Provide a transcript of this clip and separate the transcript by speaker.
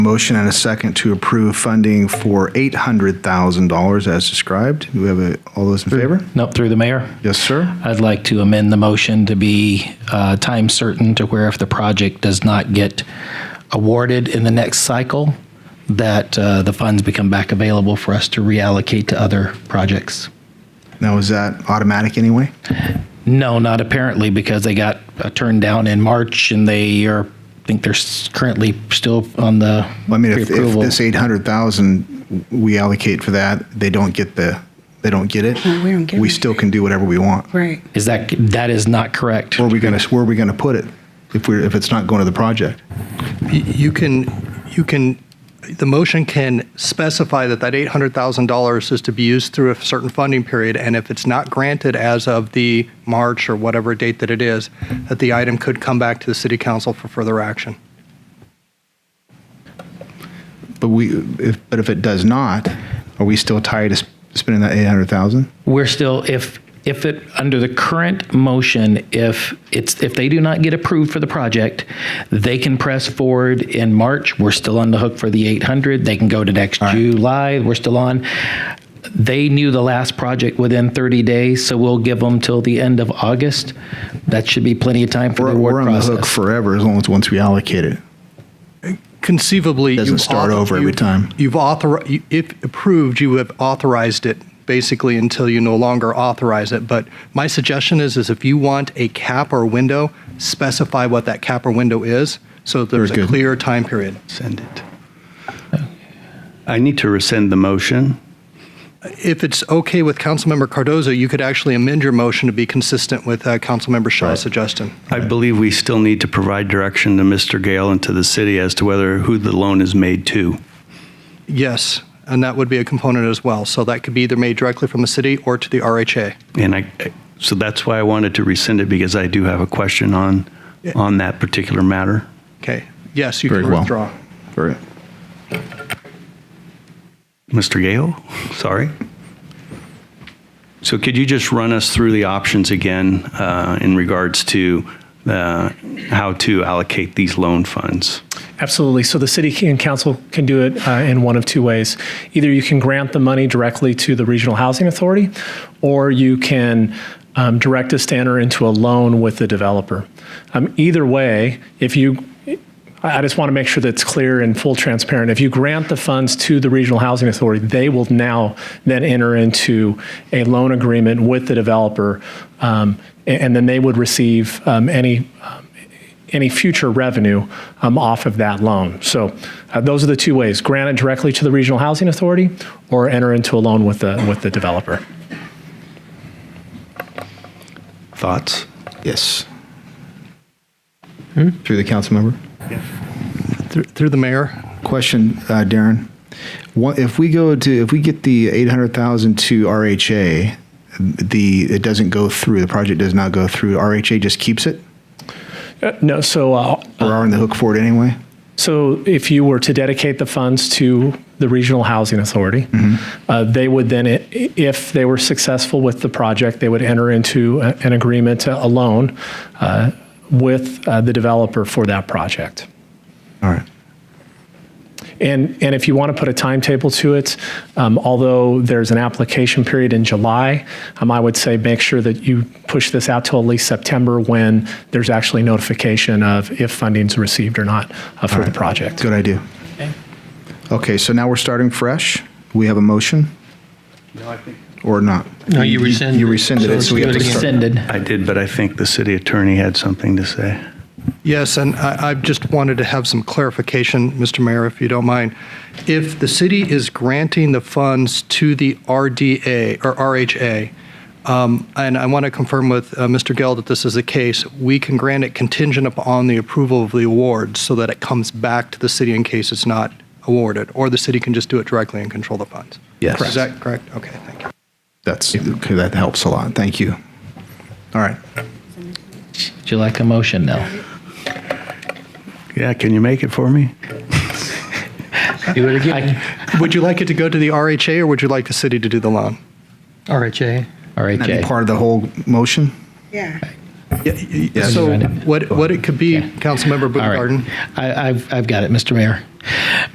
Speaker 1: Motion and a second to approve funding for $800,000 as described. Do we have a, all those in favor?
Speaker 2: Nope, through the mayor.
Speaker 1: Yes, sir.
Speaker 2: I'd like to amend the motion to be uh, time certain to where if the project does not get awarded in the next cycle, that uh, the funds become back available for us to reallocate to other projects.
Speaker 1: Now, is that automatic anyway?
Speaker 2: No, not apparently, because they got uh, turned down in March and they are, I think they're s- currently still on the
Speaker 1: Well, I mean, if, if
Speaker 2: pre-approval.
Speaker 1: this 800,000 we allocate for that, they don't get the, they don't get it.
Speaker 3: No, we don't get
Speaker 1: We
Speaker 3: it.
Speaker 1: still can do whatever we want.
Speaker 3: Right.
Speaker 2: Is that, that is not correct.
Speaker 1: Where are we going to, where are we going to put it if we're, if it's not going to the project?
Speaker 4: You can, you can, the motion can specify that that $800,000 is to be used through a certain funding period, and if it's not granted as of the March or whatever date that it is, that the item could come back to the city council for further action.
Speaker 1: But we, if, but if it does not, are we still tied to sp- spending that 800,000?
Speaker 2: We're still, if, if it, under the current motion, if it's, if they do not get approved for the project, they can press forward in March. We're still on the hook for the 800. They can go to next July. We're still on. They knew the last project within 30 days, so we'll give them till the end of August. That should be plenty of time for the
Speaker 1: We're,
Speaker 2: award
Speaker 1: we're on the hook
Speaker 2: process.
Speaker 1: forever as long as once we allocate it.
Speaker 4: Conceivably.
Speaker 1: Doesn't
Speaker 4: you've
Speaker 1: start
Speaker 4: author-
Speaker 1: over every
Speaker 4: you've-
Speaker 1: time.
Speaker 4: You've authorized, if approved, you have authorized it basically until you no longer authorize it. But my suggestion is, is if you want a cap or window, specify what that cap or window is, so there's
Speaker 1: Very
Speaker 4: a
Speaker 1: good.
Speaker 4: clear time period.
Speaker 5: Send it. I need to rescind the motion.
Speaker 4: If it's okay with Councilmember Cardozo, you could actually amend your motion to be consistent with uh, Councilmember Shaw's suggestion.
Speaker 5: I believe we still need to provide direction to Mr. Gale and to the city as to whether, who the loan is made to.
Speaker 4: Yes, and that would be a component as well. So that could be either made directly from the city or to the RHA.
Speaker 5: And I, so that's why I wanted to rescind it, because I do have a question on, on that particular matter.
Speaker 4: Okay, yes, you
Speaker 1: Very
Speaker 4: can
Speaker 1: well.
Speaker 4: withdraw.
Speaker 1: Very.
Speaker 5: Mr. Gale, sorry. So could you just run us through the options again uh, in regards to uh, how to allocate these loan funds?
Speaker 6: Absolutely. So the city and council can do it uh, in one of two ways. Either you can grant the money directly to the regional housing authority, or you can um, direct us to enter into a loan with the developer. Um, either way, if you I I just want to make sure that's clear and full transparent. If you grant the funds to the Regional Housing Authority, they will now then enter into a loan agreement with the developer, um, a- and, then they would receive um, any um, any future revenue um, off of that loan. So uh, those are the two ways: grant it directly to the Regional Housing Authority, or enter into a loan with the with the developer.
Speaker 5: Thoughts?
Speaker 1: Yes. Through the council member.
Speaker 4: Through through the mayor,
Speaker 1: Question, uh, Darren. What, if we go to, if we get the 800,000 to RHA, the, it doesn't go through, the project does not go through, RHA just keeps it?
Speaker 6: Uh, no, so uh,
Speaker 1: We're on the hook for it anyway?
Speaker 6: So if you were to dedicate the funds to the Regional Housing Authority, uh, they would then, i- if they were successful with the project, they would enter into a- an agreement, a loan uh, with uh, the developer for that project.
Speaker 1: All right.
Speaker 6: And, and if you want to put a timetable to it, um, although there's an application period in July, um, I would say make sure that you push this out till at least September when there's actually notification of if funding's received or not uh, for the project.
Speaker 1: Good idea. Okay, so now we're starting fresh. We have a motion? Or not?
Speaker 7: No, you rescinded.
Speaker 1: You rescinded it, so we have to start.
Speaker 2: Rescinded.
Speaker 5: I did, but I think the city attorney had something to say.
Speaker 4: Yes, and I I just wanted to have some clarification, Mr. Mayor, if you don't mind. If the city is granting the funds to the RDA or RHA, um, and I want to confirm with uh, Mr. Gell that this is the case, we can grant it contingent upon the approval of the award so that it comes back to the city in case it's not awarded, or the city can just do it directly and control the funds.
Speaker 1: Yes.
Speaker 4: Is that correct? Okay, thank you.
Speaker 1: That's, okay, that helps a lot. Thank you. All right.
Speaker 2: Would you like a motion now?
Speaker 5: Yeah, can you make it for me?
Speaker 7: Do it again.
Speaker 4: Would you like it to go to the RHA, or would you like the city to do the loan?
Speaker 7: RHA.
Speaker 2: All right,
Speaker 1: Can that be
Speaker 2: Jay.
Speaker 1: part of the whole motion?
Speaker 3: Yeah.
Speaker 1: Yes.
Speaker 4: So what, what it could be,
Speaker 2: Okay.
Speaker 4: Councilmember
Speaker 2: All right.
Speaker 4: Baumgarten?
Speaker 2: I, I've, I've got it, Mr. Mayor.